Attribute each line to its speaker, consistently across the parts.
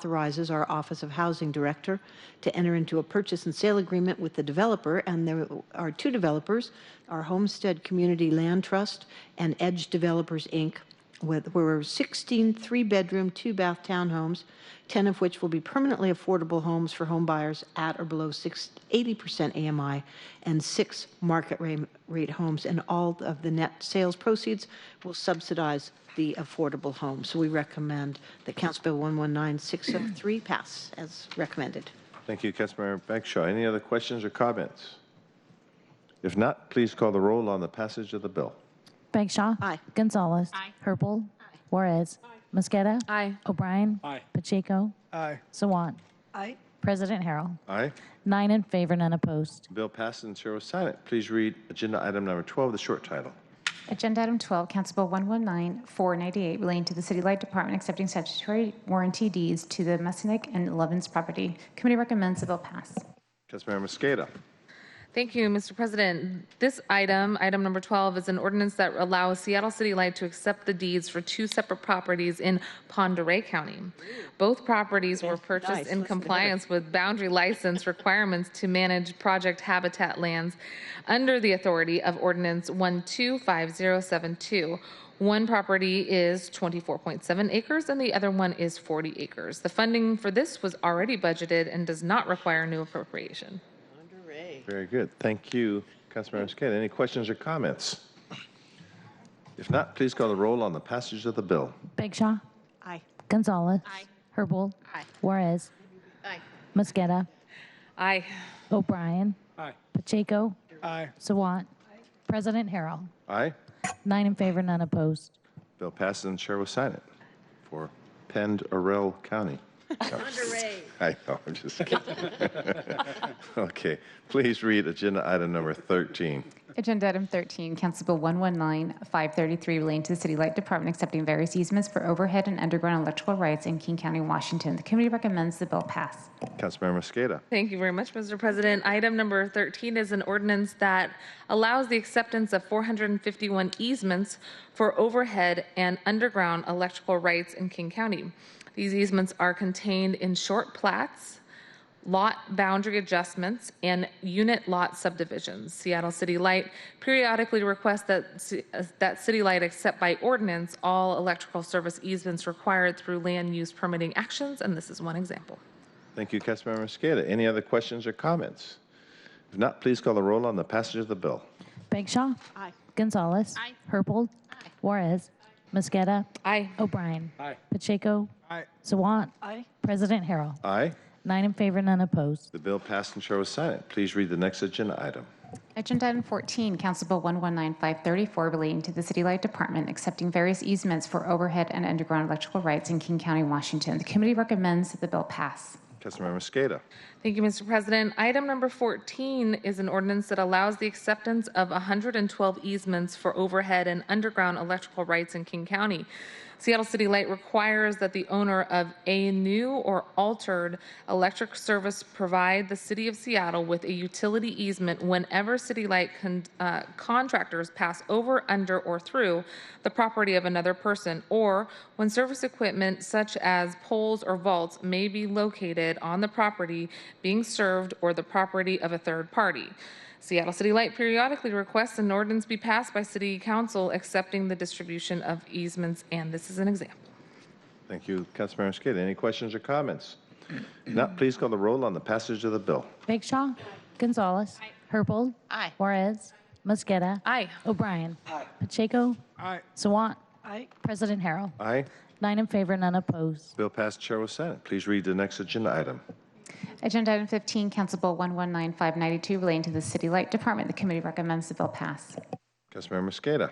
Speaker 1: authorizes our Office of Housing Director to enter into a purchase and sale agreement with the developer, and there are two developers, our Homestead Community Land Trust and Edge Developers, Inc., with, where 16 three-bedroom, two-bath townhomes, 10 of which will be permanently affordable homes for home buyers at or below six- 80% AMI, and six market ra- rate homes, and all of the net sales proceeds will subsidize the affordable home. So we recommend that Council Bill 119603 pass as recommended.
Speaker 2: Thank you, Councilmember Bagshaw. Any other questions or comments? If not, please call the roll on the passage of the bill.
Speaker 3: Bagshaw.
Speaker 1: Aye.
Speaker 3: Gonzalez. Aye. Herpel. Juarez. Mosqueda. Aye. O'Brien. Aye. Pacheco.
Speaker 4: Aye.
Speaker 3: Sawant.
Speaker 1: Aye.
Speaker 3: President Harrell.
Speaker 2: Aye.
Speaker 3: Nine in favor, none opposed.
Speaker 2: Bill passes and zero silent. Please read agenda item number 12, the short title.
Speaker 5: Agenda item 12, Council Bill 119498, relating to the City Light Department accepting statutory warranty deeds to the Messinic and Lovins property. Committee recommends the bill pass.
Speaker 2: Councilmember Mosqueda.
Speaker 6: Thank you, Mr. President. This item, item number 12, is an ordinance that allows Seattle City Light to accept the deeds for two separate properties in Ponderay County. Both properties were purchased in compliance with boundary license requirements to manage project habitat lands under the authority of ordinance 125072. One property is 24.7 acres and the other one is 40 acres. The funding for this was already budgeted and does not require new appropriation.
Speaker 2: Very good. Thank you, Councilmember Mosqueda. Any questions or comments? If not, please call the roll on the passage of the bill.
Speaker 3: Bagshaw.
Speaker 1: Aye.
Speaker 3: Gonzalez. Aye. Herpel. Aye. Juarez. Aye. Mosqueda.
Speaker 6: Aye.
Speaker 3: O'Brien.
Speaker 4: Aye.
Speaker 3: Pacheco.
Speaker 4: Aye.
Speaker 3: Sawant. President Harrell.
Speaker 2: Aye.
Speaker 3: Nine in favor, none opposed.
Speaker 2: Bill passes and chair will sign it for Pend Arel County. No, I know, I'm just kidding. Okay, please read agenda item number 13.
Speaker 5: Agenda item 13, Council Bill 119533, relating to the City Light Department accepting various easements for overhead and underground electrical rights in King County, Washington. The committee recommends the bill pass.
Speaker 2: Councilmember Mosqueda.
Speaker 6: Thank you very much, Mr. President. Item number 13 is an ordinance that allows the acceptance of 451 easements for overhead and underground electrical rights in King County. These easements are contained in short plats, lot boundary adjustments, and unit lot subdivisions. Seattle City Light periodically requests that, ci- uh, that City Light accept by ordinance all electrical service easements required through land use permitting actions, and this is one example.
Speaker 2: Thank you, Councilmember Mosqueda. Any other questions or comments? If not, please call the roll on the passage of the bill.
Speaker 3: Bagshaw.
Speaker 1: Aye.
Speaker 3: Gonzalez. Aye. Herpel. Aye. Juarez. Mosqueda.
Speaker 6: Aye.
Speaker 3: O'Brien.
Speaker 4: Aye.
Speaker 3: Pacheco.
Speaker 4: Aye.
Speaker 3: Sawant. Aye. President Harrell.
Speaker 2: Aye.
Speaker 3: Nine in favor, none opposed.
Speaker 2: The bill passed and chair will sign it. Please read the next agenda item.
Speaker 5: Agenda item 14, Council Bill 119534, relating to the City Light Department accepting various easements for overhead and underground electrical rights in King County, Washington. The committee recommends that the bill pass.
Speaker 2: Councilmember Mosqueda.
Speaker 6: Thank you, Mr. President. Item number 14 is an ordinance that allows the acceptance of 112 easements for overhead and underground electrical rights in King County. Seattle City Light requires that the owner of a new or altered electric service provide the City of Seattle with a utility easement whenever City Light con- uh, contractors pass over, under, or through the property of another person, or when service equipment such as poles or vaults may be located on the property being served or the property of a third party. Seattle City Light periodically requests an ordinance be passed by City Council accepting the distribution of easements, and this is an example.
Speaker 2: Thank you, Councilmember Mosqueda. Any questions or comments? If not, please call the roll on the passage of the bill.
Speaker 3: Bagshaw. Gonzalez. Herpel.
Speaker 1: Aye.
Speaker 3: Juarez. Mosqueda.
Speaker 6: Aye.
Speaker 3: O'Brien. Pacheco.
Speaker 4: Aye.
Speaker 3: Sawant.
Speaker 1: Aye.
Speaker 3: President Harrell.
Speaker 2: Aye.
Speaker 3: Nine in favor, none opposed.
Speaker 2: Bill passed, chair will sign it. Please read the next agenda item.
Speaker 5: Agenda item 15, Council Bill 119592, relating to the City Light Department. The committee recommends the bill pass.
Speaker 2: Councilmember Mosqueda.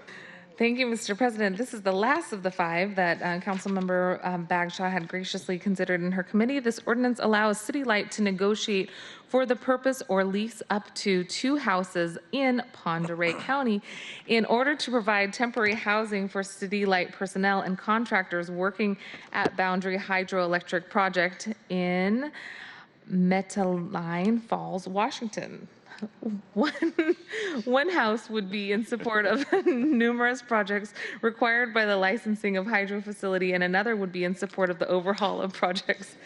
Speaker 6: Thank you, Mr. President. This is the last of the five that uh, Councilmember um, Bagshaw had graciously considered in her committee. This ordinance allows City Light to negotiate for the purpose or lease up to two houses in Ponderay County in order to provide temporary housing for City Light personnel and contractors working at Boundary Hydroelectric Project in Metaline Falls, Washington. One, one house would be in support of numerous projects required by the licensing of hydro facility, and another would be in support of the overhaul of projects